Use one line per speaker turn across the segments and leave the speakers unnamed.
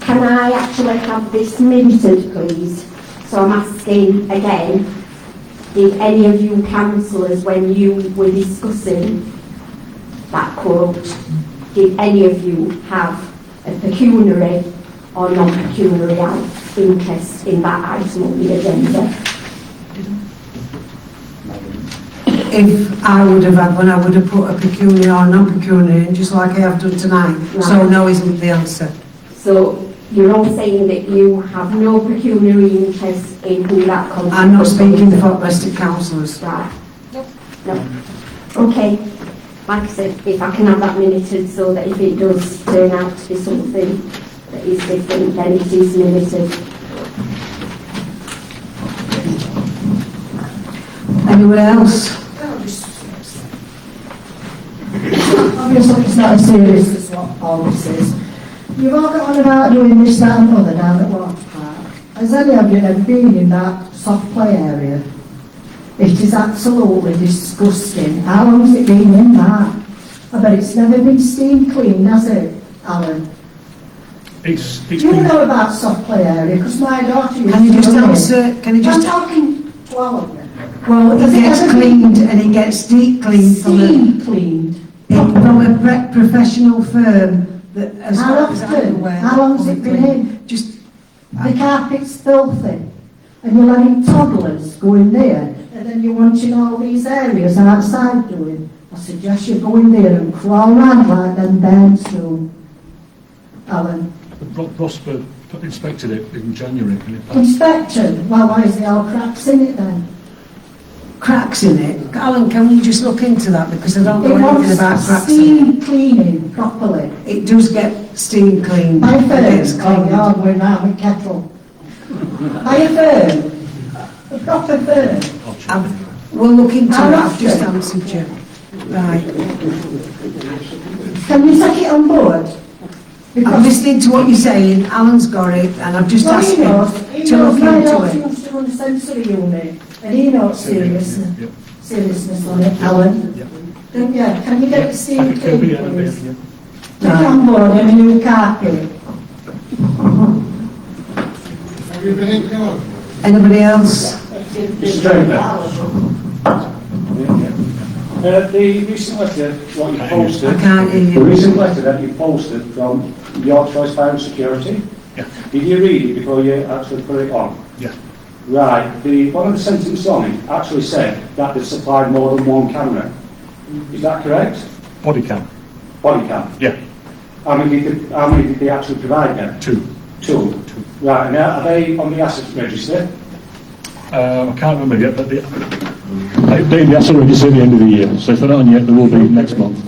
Can I actually have this minuted, please? So I'm asking again, did any of you councillors, when you were discussing that quote, did any of you have a pecuniary or non-pecuniary out- interest in that item on the agenda?
If I would have had one, I would have put a pecuniary or non-pecuniary in, just like I have done tonight. So
Right.
no isn't the answer.
So you're all saying that you have no pecuniary interest in who that consultant
I'm not speaking
is.
for domestic councillors.
Right. No. Okay. Like I said, if I can have that minuted so that if it does turn out to be something that is different, then it is minuted.
Anyone else?
Obviously, it's not as serious as what all this is. You've all got on about doing this, that and other down at Watts Park. Has any of you ever been in that soft play area? It is absolutely disgusting. How long's it been in that? I bet it's never been steam cleaned, has it, Alan?
It's,
Do
it's
you
been,
know about soft play area? Because my daughter used to...
Can you just
run it.
answer, can you
I'm
just,
talking to all of you.
well, it
Has it
gets
ever
cleaned and it gets deep cleaned from a,
Steam cleaned.
it- from a pre- professional firm that as
How
far as I'm
often?
aware.
How long's it been
clean.
in?
Just,
The carpet's filthy, and you're letting toddlers go in there, and then you're watching all these areas outside doing. I suggest you go in there and crawl around like them bairns do. Alan,
Ro- Rosper inspected it in January and it passed.
inspector, well, why is there all cracks in it then?
cracks in it. Alan, can we just look into that because I don't
It
know anything about
wants
cracks in it.
steam cleaning properly.
It does get steam cleaned.
My
It gets
firm, oh
cleaned.
God, we're now with kettle. My firm, a proper firm.
I'll check.
I've, we'll look into
How
that, I've just
often?
answered you. Right,
Can you take it on board?
I'm
Because
listening to what you're saying, Alan's got it, and I've just
Well,
asked
he
him
knows, he
to
knows,
look
my daughter
into it.
used to run a sensory unit, and he knows seriousness,
Yeah.
seriousness on it, Alan.
Yeah.
Then, yeah, can you get the steam
It could
clean,
be, yeah, yeah,
please?
yeah.
Put it on board and a new carpet.
Anybody else?
Uh, the recent letter, what you
I
posted,
can't hear
the
you.
recent letter that you posted from Your Choice Fire and Security,
Yeah.
did you read it before you actually put it on?
Yeah.
Right, the, one of the sentences on it actually said that they supplied more than one camera. Is that correct?
Body cam,
Body cam.
yeah,
How many did, they- how many did they actually provide then?
two.
Two. Right, and are they on the asset register?
Um, I can't remember yet, but the, they, they, the asset register at the end of the year, so if they're not on yet, they will be next month.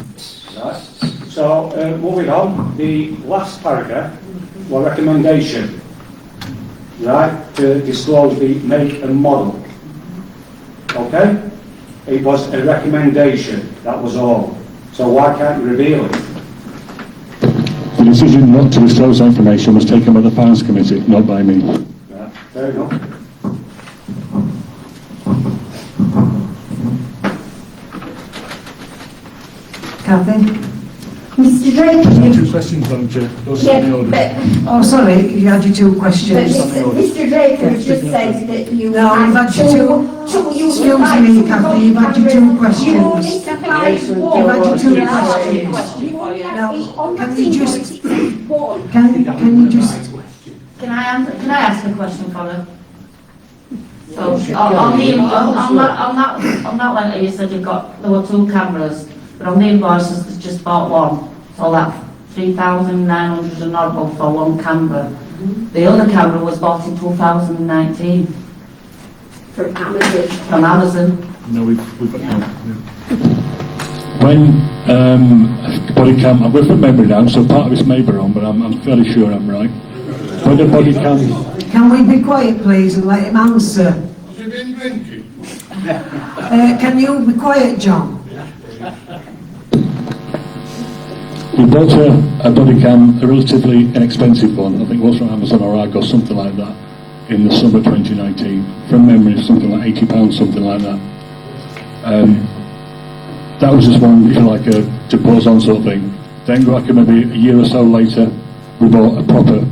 Right. So, uh, moving on, the last paragraph, well, recommendation, right, to disclose the make and model. Okay? It was a recommendation, that was all. So why can't you reveal it?
The decision not to disclose that information was taken by the Finance Committee, not by me.
Right, Fair enough.
Kathy?
Mr Drake,
Two questions, Madam Chair, those are in
yeah,
the order.
but
Oh, sorry, you had your two
But
questions.
Mr. Mr. Drake has just said that you.
No, I've
had
had you
two-
two-
two- you
excuse
supplied
me,
two
Kathy, you've had your two
hundred-
questions.
You only supplied one.
You've had your two
You asked
questions.
a question. You only asked
Now,
me on
can
that
you
single
just-
instance, one.
Can, can you just,
Can I answer, can I ask a question, Colin? So, on on the, on on that, on that, on that letter, you said you got, there were two cameras, but on the invoices, they just bought one. So that three thousand nine hundred and odd bob for one camera. The other camera was bought in two thousand and nineteen
From Amazon.
from Amazon.
No, we've, we've, no, no.
When um, body cam, I'm going from memory now, so part of it's may be wrong, but I'm, I'm fairly sure I'm right. When the body cam,
can we be quiet, please, and let him answer? Uh, can you be quiet, John?
we bought a, a body cam, a relatively inexpensive one, I think it was from Amazon or Argos, something like that, in the summer 2019. From memory, it's something like £80, something like that. Um, that was just one, if you like, a to pause on sort of thing. Then, like maybe a year or so later, we bought a proper